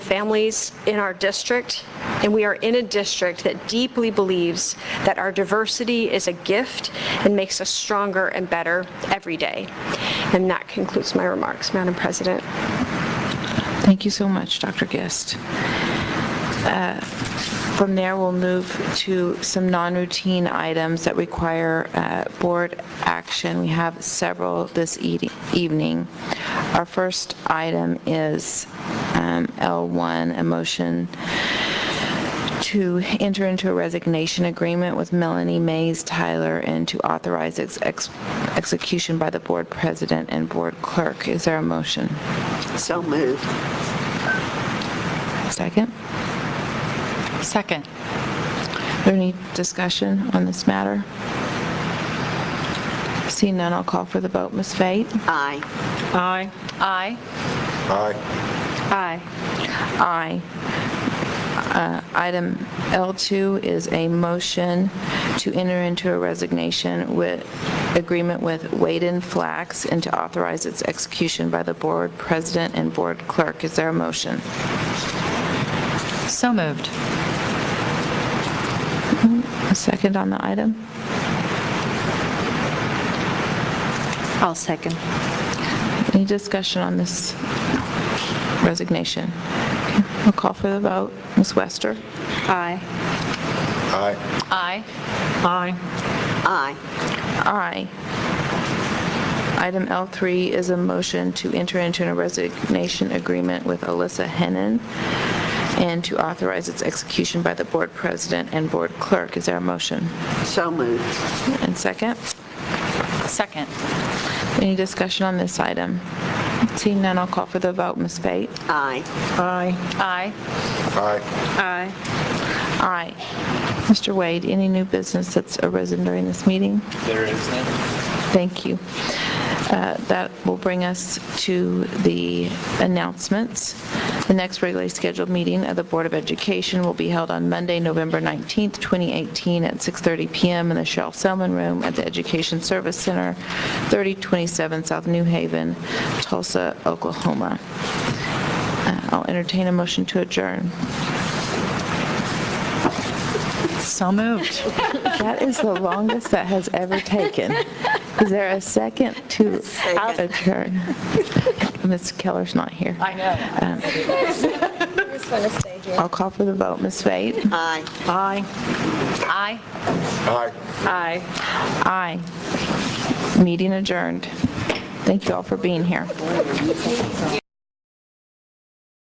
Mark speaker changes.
Speaker 1: families in our district, and we are in a district that deeply believes that our diversity is a gift and makes us stronger and better every day. And that concludes my remarks, Madam President.
Speaker 2: Thank you so much, Dr. Gist. Uh, From there, we'll move to some non-routine items that require uh, board action. We have several this eat- evening. Our first item is um, L1, a motion to enter into a resignation agreement with Melanie Mays Tyler and to authorize its ex- execution by the board president and board clerk. Is there a motion?
Speaker 3: So moved.
Speaker 2: Second?
Speaker 4: Second.
Speaker 2: Is there any discussion on this matter? Seeing none, I'll call for the vote. Ms. Fate?
Speaker 3: Aye.
Speaker 4: Aye. Aye.
Speaker 5: Aye.
Speaker 4: Aye.
Speaker 2: Aye. Uh, Item L2 is a motion to enter into a resignation with, agreement with Waden Flax and to authorize its execution by the board president and board clerk. Is there a motion?
Speaker 4: So moved.
Speaker 2: A second on the item?
Speaker 4: I'll second.
Speaker 2: Any discussion on this resignation? Okay, I'll call for the vote. Ms. Wester?
Speaker 4: Aye.
Speaker 5: Aye.
Speaker 4: Aye. Aye.
Speaker 3: Aye.
Speaker 2: Aye. Item L3 is a motion to enter into a resignation agreement with Alyssa Hennan and to authorize its execution by the board president and board clerk. Is there a motion?
Speaker 3: So moved.
Speaker 2: And second?
Speaker 4: Second.
Speaker 2: Any discussion on this item? Seeing none, I'll call for the vote. Ms. Bate?
Speaker 3: Aye.
Speaker 4: Aye.
Speaker 5: Aye.
Speaker 4: Aye.
Speaker 2: Aye. Mr. Wade, any new business that's arisen during this meeting?
Speaker 6: There is none.
Speaker 2: Thank you. Uh, That will bring us to the announcements. The next regularly scheduled meeting of the Board of Education will be held on Monday, November 19th, 2018, at 6:30 PM in the Shel Selman Room at the Education Service Center, 3027 South New Haven, Tulsa, Oklahoma. Uh, I'll entertain a motion to adjourn.
Speaker 4: So moved.
Speaker 2: That is the longest that has ever taken. Is there a second to adjourn? Ms. Keller's not here. Um,
Speaker 4: I know.
Speaker 2: I'll call for the vote. Ms. Fate?
Speaker 3: Aye.
Speaker 4: Aye.
Speaker 5: Aye.
Speaker 4: Aye.
Speaker 2: Aye. Meeting adjourned. Thank you all for being here.